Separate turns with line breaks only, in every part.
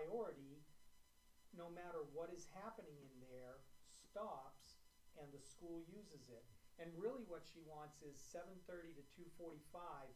priority, no matter what is happening in there, stops and the school uses it. And really what she wants is seven thirty to two forty-five,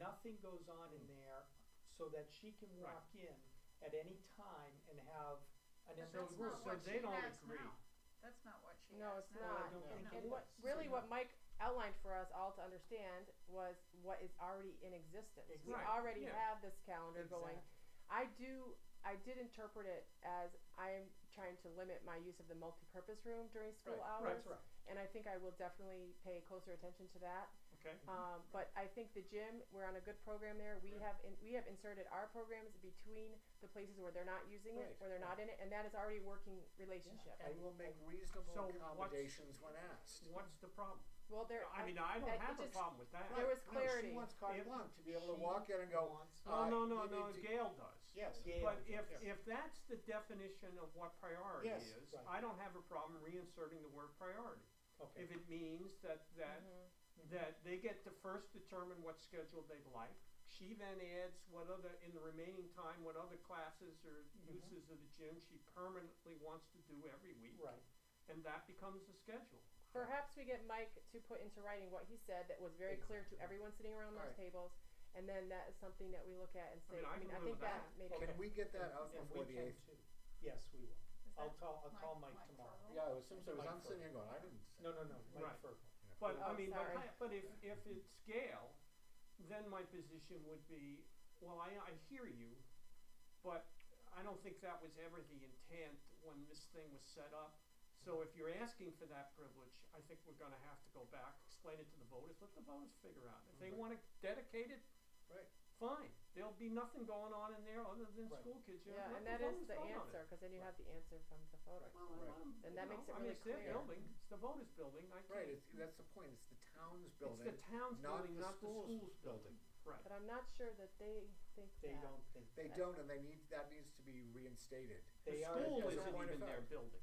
nothing goes on
Hmm.
in there so that she can
Right.
walk in at any time and have an
But
empty
that's
room.
so
not what
they
she
don't
has
agree.
now. That's not what she
No,
has
it's
now.
Well, I
not.
don't
No.
think
And
it
what,
is.
really
So-
what Mike outlined for us all to understand was what is already in existence. We
Right,
already
yeah.
have this calendar going.
Exactly.
I do, I did interpret it as I am trying to limit my use of the multipurpose room during school
Right,
hours.
That's right.
And I think I will definitely pay closer attention to that.
Okay.
Um, but I think the gym, we're on a good program there. We
Mm-hmm. Right.
have in, we have inserted our programs between the places where they're not using it,
Right,
where they're not in it, and that is already a working relationship.
I will make reasonable
So what's-
accommodations when asked.
What's the problem?
Well, there.
I mean, I
I- it
don't have a
just-
problem with that.
There was
Right, no,
clarity.
She wants carte
If
blanche to be able to
she
walk in and go,
wants-
uh,
No, Oh, no, no,
you
no,
need to-
Gail does.
yes.
Yeah.
But if,
Yeah.
if that's the definition of what priority
Yes,
is,
right.
I don't have a problem reinserting the word priority.
Okay.
If it means that, that, that they get to first determine what schedule they'd like. She then adds what other, in the remaining time, what other classes or
Mhm.
uses of the gym she permanently wants to do every week.
Right.
And that becomes the schedule.
Perhaps we get Mike to put into writing what he said that was very clear to everyone sitting around those
Alright.
tables, and then that is something that we look at and
I
say.
mean, I can live
think
with that.
made
Okay.
it.
Can we get that out
And
before
we
the
can
eighth?
too. Yes, we will.
Is
I'll
that
call, I'll
Mike-
call Mike tomorrow.
Ferrell?
Yeah, it was some sort of,
Like
I'm
for-
sitting here going, I didn't say.
No, no, no, Mike
Right.
Fergus.
But I
Oh,
mean, but,
sorry.
I- but if, if it's Gail, then my position would be, well, I, I hear you, but I don't think that was ever the intent when this thing was set up. So if you're asking for that privilege, I think we're gonna have to go back, explain it to the voters, let the voters figure out. If they
Right.
wanna dedicate it,
Right.
fine. There'll be nothing going on in there other than
Right.
school kids, you know,
Yeah,
let
and
the
that is
voters
the
vote on it.
answer, because then you have the answer from the photo.
Right.
Well, I let 'em,
And
you
that
know,
makes it
I mean,
really
it's their
clear.
building, it's the voters' building, I can't.
Right, it's, that's the point, it's the town's
It's
building.
the town's
not
building,
the
not the
school's
school's building,
building.
right.
But I'm not sure that they think
They
that.
don't think,
They don't, and they need, that needs to be reinstated.
they are,
The school
as a
isn't
point of
even their
fact.
building.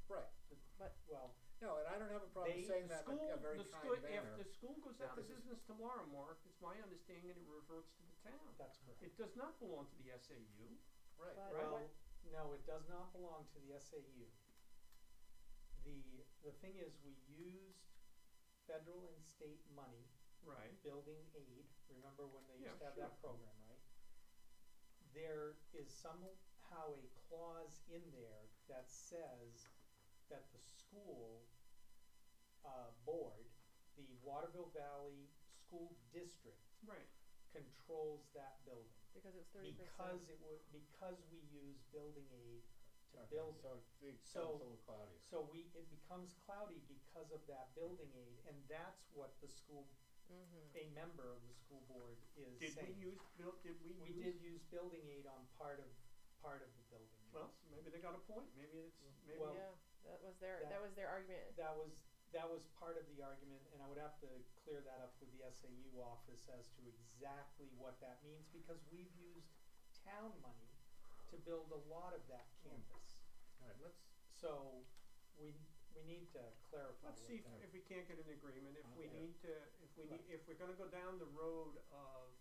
Right,
well,
no, and I don't have a problem
They-
saying
The
that in
school,
a- a very
the
kind
school,
manner.
if the school goes
that
out of
this is-
business tomorrow, Mark, it's my understanding it reverts to the town.
that's correct.
It does not belong to the SAU.
Right,
But what-
Well, no, it does not belong to the SAU. The, the thing is, we used federal and state money
Right.
building aid, remember when they
Yeah,
used to have
sure.
that program, right? There is somehow a clause in there that says that the school, uh, board, the Waterville Valley School District
Right.
controls that building.
because it was thirty percent.
Because it would, because we use building aid to
Okay,
build it.
So, the, so
So-
it's a little cloudy.
So we, it becomes cloudy because of that building aid, and that's what the school, a
Mm-hmm.
member of the school board is
Did we
saying.
use, built, did we
We
use?
did use building aid on part of, part of the building.
Well, maybe they got a point, maybe it's,
Mm.
maybe.
Well-
yeah, that was their that,
that-
was their argument.
That was, that was part of the argument, and I would have to clear that up with the SAU office as to exactly what that means, because we've used town money to build a lot of that campus.
All right, let's,
So, we, we need to clarify
Let's
what
see if,
Okay.
if we can't get an agreement, if we
Okay.
need to, if we need, if we're gonna go down the road of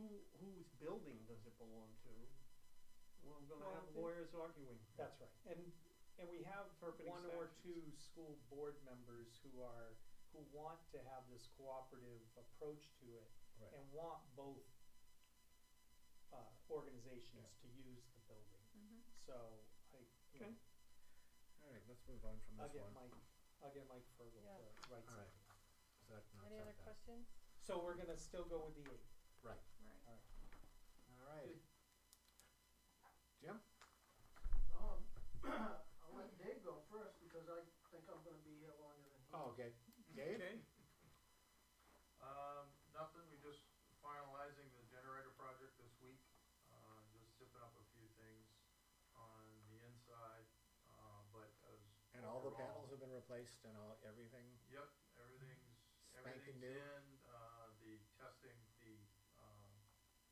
who, whose building does it belong to? We're
Well,
gonna
I
have
think-
lawyers arguing.
That's right, and, and we have
Interpreting
one or two
statutes.
school board members who are, who want to have this cooperative approach to it
Right.
and want both uh, organizations to use the building,
Mhm.
so I, you know,
Okay.
all right, let's move on from
I'll
this
get
one.
Mike, I'll get Mike Fergel
Yeah.
to write something.
All right. So that knocks
Any
out
other
that.
questions?
So we're gonna still go with the eight.
Right.
All right.
Good.
Jim?
Um, I'll let Dave go first because I think I'm gonna be here longer than he.
Oh, okay. Dave?
Okay.
Um, nothing, we just finalizing the generator project this week, uh, just zipping up a few things on the inside, uh, but as.
And all the
overall-
panels have been replaced and all, everything?
Yep, everything's,
Spanking
everything's
new.
in, uh, the testing, the, um,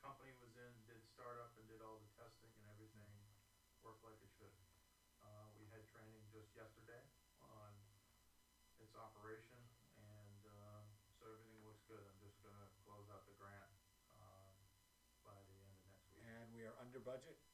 company was in, did startup and did all the testing and everything, worked like it should. Uh, we had training just yesterday on its operation, and, uh, so everything looks good, I'm just gonna close out the grant, uh, by the end of next week. Uh,
And we are under budget?